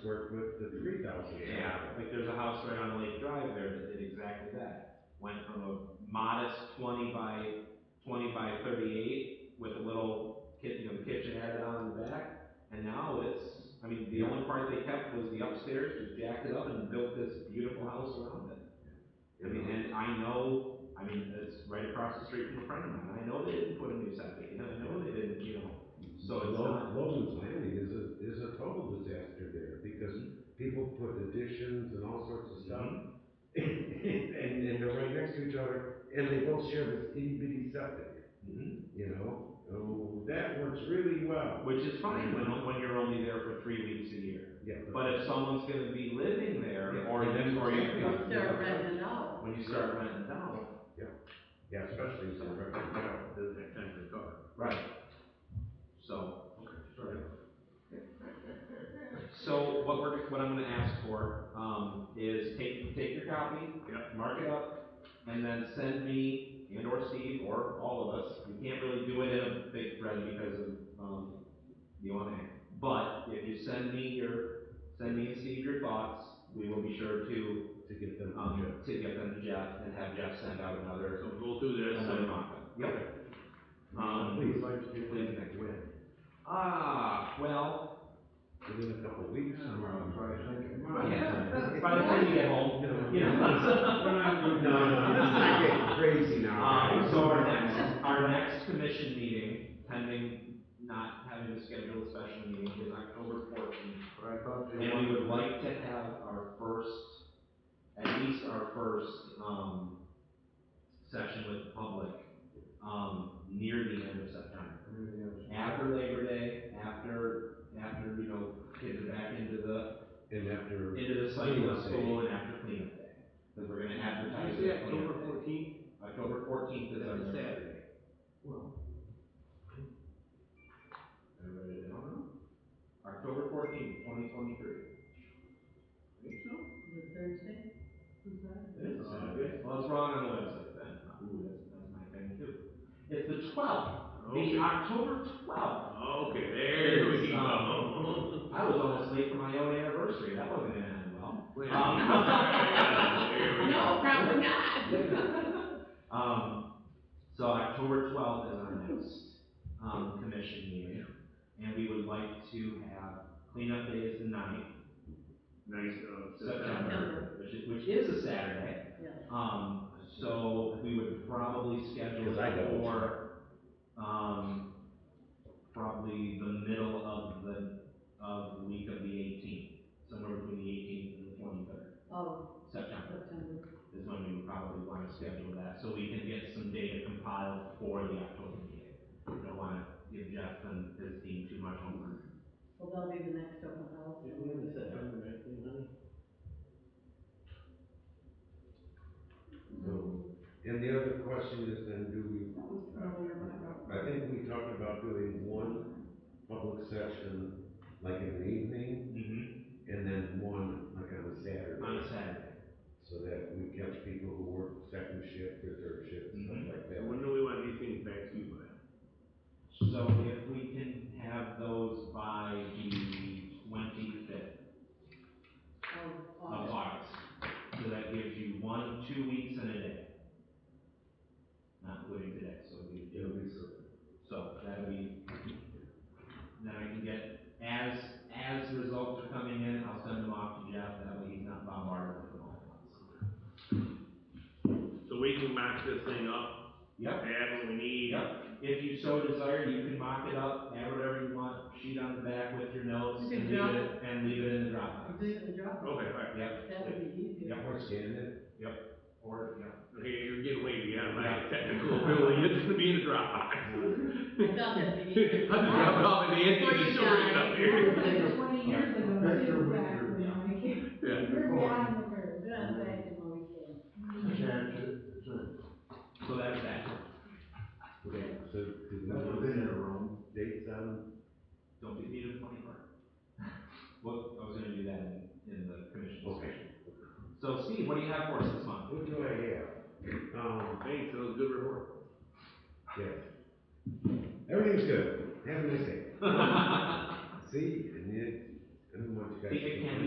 square foot to three thousand. Yeah, like there's a house right on Lake Drive there that did exactly that. Went from a modest twenty by, twenty by thirty-eight with a little kit, you know, the kitchen added on in the back. And now it's, I mean, the only part they kept was the upstairs, just jacked it up and built this beautiful house around it. I mean, and I know, I mean, it's right across the street from a friend of mine. I know they didn't put a new septic in. I know they didn't, you know, so it's Lo- not. Logan's Landing is a, is a total disaster there, because people put additions and all sorts of stuff. And, and they're right next to each other, and they both share this itty bitty septic, Mhm. you know? Oh, that works really well. Which is fine when, when you're only there for three weeks a year. Yeah, But if someone's gonna be living there, Yeah, or and you, that's or exactly you, what- Start renting out. when you start renting it out. Yeah, especially if they're renting it out. Doesn't have time to recover. Right. So, Okay, sorry. so what we're, what I'm gonna ask for, um, is take, take your copy. Yep. Mark it up, and then send me and or Steve or all of us, we can't really do it in a big thread because of, um, the OMA. But if you send me your, send me and Steve your thoughts, we will be sure to, To get them to um, check. to get them to Jeff and have Jeff send out another So we'll do this. Another mock-up. Yep. Um, Please, like to do please, that next. when? Ah, well, Within a couple of weeks or? um, yeah. By the time you get home, you know. No, no, let's not get crazy now. Um, guys. so our next, our next commission meeting, pending not having to schedule a special meeting, is October fourteenth. But I thought they And we wanted, would like to have our first, at least our first, um, session with the public, um, near the end of September. everything else. after Labor Day, after, after, you know, kids are back into the, And after, into the cycle Cleanup of day. school and after cleanup day. Because we're gonna advertise Tuesday, it cleanup October day. fourteenth, October fourteenth is that's our a next. Saturday. I wrote it down. October fourteenth, twenty twenty-three. Think so? Is it Thursday? Who's that? It is a Saturday. Uh, Well, it's wrong on the website then. Ooh, that's, that's my thing too. It's the twelfth, the Okay. October twelfth. Okay, there we It's, go. I was almost late for my own anniversary. That wasn't gonna end well. Wait a um, minute. There we No, go. probably not. Um, so October twelfth is our next, um, commission meeting. And we would like to have cleanup day is the ninth, Nice, uh, September. September, September. which is, which is a Saturday. Yeah. Um, so we would probably schedule Because I it double for, um, probably the middle of the, of the week of the eighteenth, somewhere between the eighteenth and the twenty-third, Oh, September September. is when we would probably want to schedule that, so we can get some data compiled for the October meeting. We don't want to give Jeff and his team too much homework. Well, that'll be the next open house. So, and the other question is then, do we, That was earlier, but I don't. I think we talked about doing one public session, like in the evening, Mm-hmm. and then one, like on a On a Saturday. Saturday. So that we catch people who work second shift or third shift, Mm-hmm. stuff like So that. When do we want these things back to you by? So if we can have those by the twenty-fifth Oh, of August. August, so that gives you one, two weeks and a day. Not including today, so it'd be two weeks. So that'll be, then I can get, as, as the results are coming in, I'll send them off to Jeff, that way he's not bombarded with them all at once. So we can mock this thing up, Yep, add what we need. yep, if you so desire, you can mock it up, add whatever you want, sheet on the back with your notes, You can and leave drop it, and leave it in the You Dropbox. do the Okay, job. all right. Yep, That would be easier. yep, Or scan it, or, yep. Okay, you're getting way beyond my Yeah. technical ability. It's gonna be in a Dropbox. I thought that'd be I easier. just dropped off at the end Before of the you story die. up That here. was like twenty years ago, Victor too, back Winter. when I came, Yeah. you're behind the curve. Yeah, back in what we That's said. it, that's it. So that's that, okay, so did we That's want within to your room. set dates on, don't beat me to the funny part. Well, I was gonna do that in, in the commission Okay. discussion. So Steve, what do you have for us this month? what do I have? Um, Thanks, that was a good report. yes. Everything's good, have a nice day. See, and you, I don't want you Okay. See, it can